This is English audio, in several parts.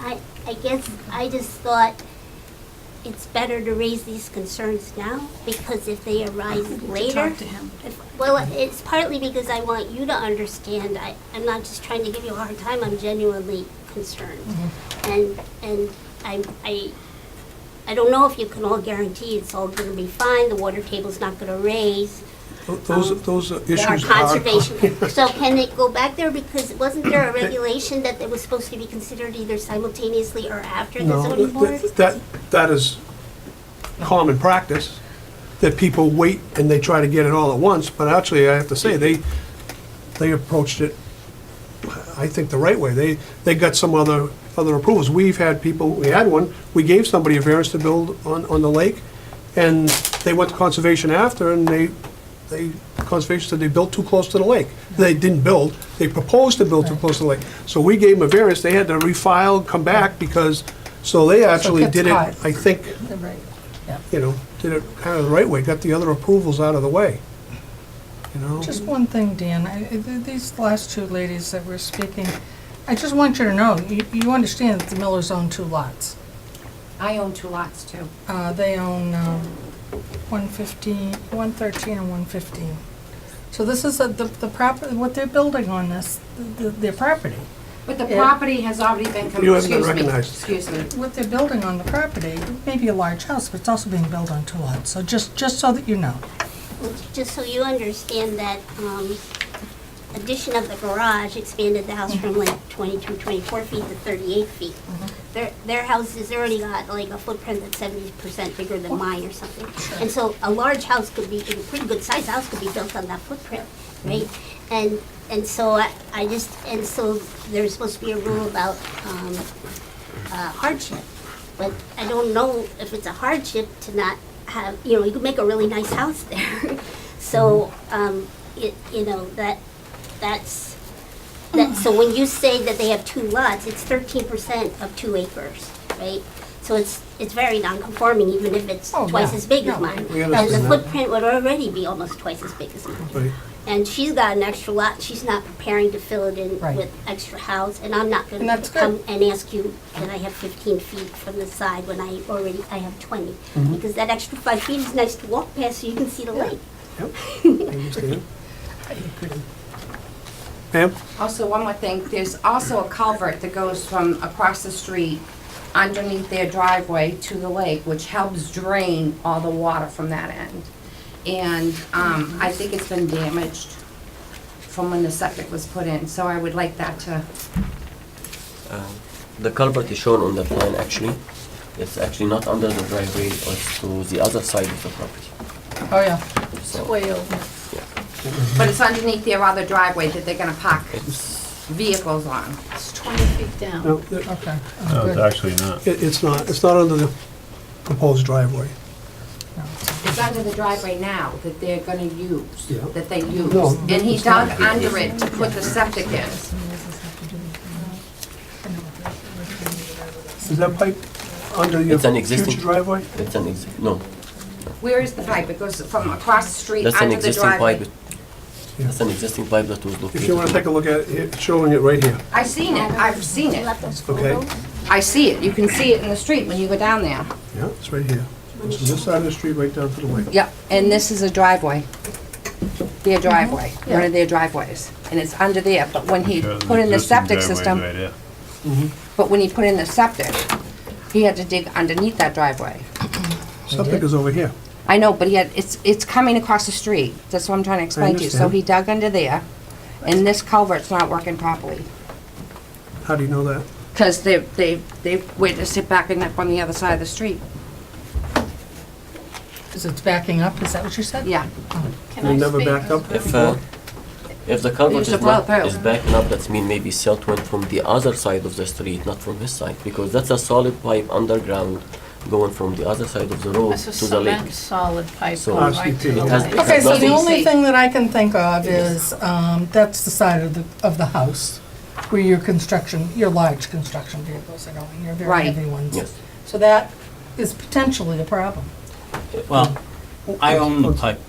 I, I guess I just thought it's better to raise these concerns now, because if they arise later. Talk to him. if- Well, it's partly because I want you to understand, I, I'm not just trying to give you a hard time, I'm genuinely concerned. Mm-hmm. And, and I, I, I don't know if you can all guarantee it's all gonna be fine, the water table's not gonna raise. Tho- Those, those issues Our are. conservation, so can it go back there, because wasn't there a regulation that it was supposed to be considered either simultaneously or after the No, zoning board? th- th- that, that is common practice, that people wait and they try to get it all at once, but actually, I have to say, they, they approached it, I think, the right way. They, they got some other, other approvals. We've had people, we had one, we gave somebody a variance to build on, on the lake, and they went to conservation after, and they, they, conservation said they built too close to the lake. They didn't build, they proposed to build too close to the lake. So we gave them a variance, they had to refile, come back, because, so they actually gets did it, caught. I think, Right, you know, did it kind of the right way, got the other approvals out of the way, you know? Just one thing, Dan, I- I- th- these last two ladies that were speaking, I just want you to know, you you understand that the Millers own two lots. I own two lots too. Uh, They own um, 115, 113 and 115. So this is a- the the property, what they're building on this, th- th- their property. But the Yeah. property has already been, com- You haven't been excuse me, recognized. excuse me. What they're building on the property, it may be a large house, but it's also being built on two lots. So just just so that you know. Just so you understand that, um, addition of the garage expanded the house from like 22, 24 feet to 38 feet. Their, their house has already got like a footprint that's 70% bigger than mine or something. And so a large house could be, a pretty good sized house could be built on that footprint, right? And, and so I, I just, and so there's supposed to be a rule about, um, uh, hardship. But I don't know if it's a hardship to not have, you know, you could make a really nice house there. So, um, it, you know, that, that's, that, so when you say that they have two lots, it's thirteen percent of two acres, right? So it's, it's very non-conforming, even if it's Oh, twice yeah. as big Yeah, as mine. we And the understand that. footprint would already be almost twice as big as mine Right. and she's got an extra lot, she's not preparing to fill it in Right. with extra house, and I'm not And gonna that's come good. and ask you that I have fifteen feet from the side when I already, I have twenty. Mm-hmm. Because that extra five feet is nice to walk past so you can see the lake. Yep, I understand. Ma'am, Also, one more thing, there's also a culvert that goes from across the street underneath their driveway to the lake, which helps drain all the water from that end. And, um, I think it's been damaged from when the septic was put in, so I would like that to, The culvert is shown on the plan actually. It's actually not under the driveway, it's to the other side of the property. Oh, yeah. So way over. but it's underneath their other driveway that they're gonna park It's, vehicles on. It's 20 feet down. no, it- Okay. No, Good. it's actually not. it- it's not, it's not under the proposed driveway. It's under the driveway now that they're gonna use, Yeah. that they use. No, And he dug under it to put the septic in. Is that pipe under your It's an existing- future driveway? it's an exi- no, Where is the pipe? It goes from across the street that's an under the existing pipe. driveway. That's an existing pipe that was located. If you want to take a look at it, it's showing it right here, I've seen it, I've seen You it. left those okay? photos? I see it, you can see it in the street when you go down there. Yeah, it's right here. This is this side of the street, right down to the lake. Yep, and this is a driveway. Their driveway, one of their driveways, and it's under there, but when he Sure, put in the existing septic driveway's system, right there. but when he put in the septic, he had to dig underneath that driveway. Something is over here. I know, but he had, it's, it's coming across the street. That's what I'm trying to explain to you. So understand. he dug under there, and this culvert's not working properly. How do you know that? Because they, they, they witnessed it backing up on the other side of the street. Is it backing up? Is that what you said? Yeah. Can They I never speak? backed up? If, uh, if the culvert Use the is not, plow, plow. is backing up, that means maybe silt went from the other side of the street, not from his side, because that's a solid pipe underground going from the other side of the road That's a to the lake. cement solid pipe So- going right to the It has- lake. it has Okay, so the nothing- only thing that I can think of is, um, that's the side of the, of the house where your construction, your large construction vehicles are going, your very Right. heavy ones. Yes. So that is potentially a problem. Well, I own the pipe.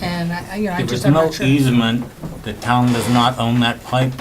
And I, I- Mm. you know, I There just, was I'm no not sure. easement, the town does not own that pipe.